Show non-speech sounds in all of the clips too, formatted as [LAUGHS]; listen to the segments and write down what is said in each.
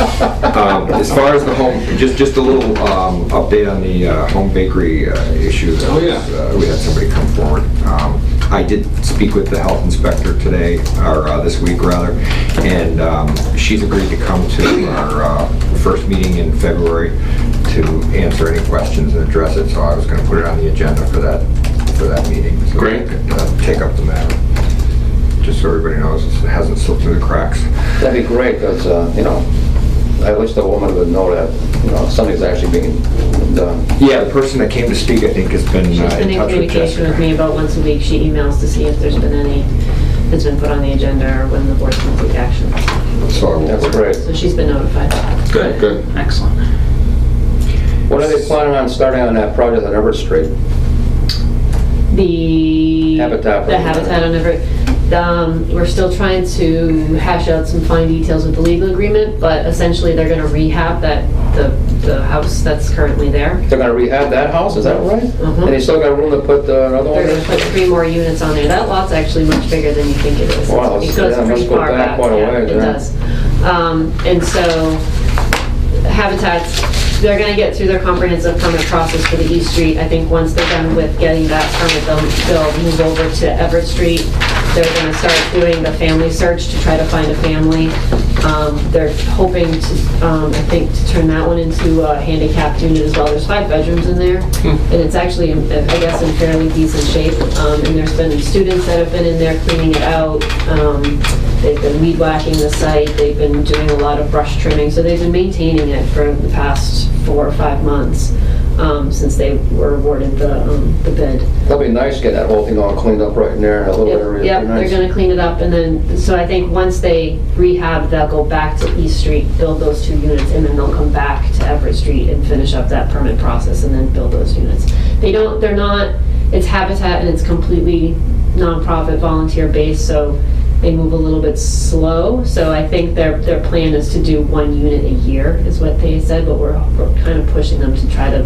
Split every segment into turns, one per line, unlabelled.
Um, As far as the home, just, just a little um, update on the uh, home bakery uh, issue. that
Oh, yeah.
was, uh, We had somebody come forward. Um, I did speak with the health inspector today, or uh, this week rather, and um, she's agreed to come to our uh, first meeting in February to answer any questions and address it, so I was gonna put it on the agenda for that, for that meeting. so we
Great.
could, uh, Take up the matter. Just so everybody knows, it hasn't slipped through the cracks.
That'd be great, because, you know, I wish the woman would know that, you know, something's actually being done.
Yeah, the person that came to speak, I think, has been
She's
uh,
been
in
in
touch with
communication with
Jessica.
me about once a week. She emails to see if there's been any that's been put on the agenda or when the board's going to take action.
So I will-
That's great.
So she's been notified.
Good, good.
Excellent.
What are they planning on starting on that project on Everett Street?
The.
Habitat for Humanity.
The Habitat on Everett. Um, we're still trying to hash out some fine details with the legal agreement, but essentially they're gonna rehab that, the, the house that's currently there.
They're gonna rehab that house, is that right?
Mhm.
And they still got room to put the- another one
They're gonna
in?
put three more units on there. That lot's actually much bigger than you think it is.
Wow,
It
it's-
goes
yeah, it
pretty
must go
far
back quite a
yeah,
ways,
It
yeah.
does. Um, and so Habitats, they're gonna get through their comprehensive permit process for the East Street. I think once they're done with getting that permit, they'll, they'll move over to Everett Street. They're gonna start doing the family search to try to find a family. Um, they're hoping to, um, I think, to turn that one into a handicapped unit as well. There's five bedrooms in there. And it's actually, in- I guess, in fairly decent shape. Um, and there's been students that have been in there cleaning it out. Um, They've been weed whacking the site, they've been doing a lot of brush trimming, so they've been maintaining it for the past four or five months, um, since they were awarded the, um, the bid.
That'd be nice, get that whole thing all cleaned up right in there, in that little area.
Yep,
It'd be
they're
nice.
gonna clean it up, and then, so I think once they rehab, they'll go back to East Street, build those two units, and then they'll come back to Everett Street and finish up that permit process, and then build those units. They don't, they're not, it's Habitat, and it's completely nonprofit, volunteer-based, so they move a little bit slow, so I think their, their plan is to do one unit a year, is what they said, but we're, we're kind of pushing them to try to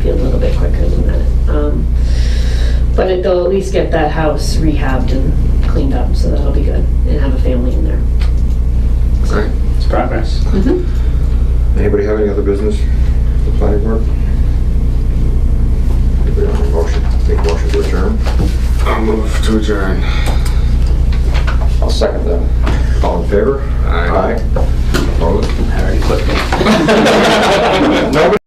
be a little bit quicker than that. Um, but it- they'll at least get that house rehabbed and cleaned up, so that'll be good, and have a family in there.
Great.
It's progress.
Anybody have any other business? The planning board? Anybody have a motion? Make a motion to adjourn?
I'll move to adjourn.
I'll second that.
All in favor?
Aye.
Aye. Opposed?
I already clicked it.
[LAUGHS]
Nobody?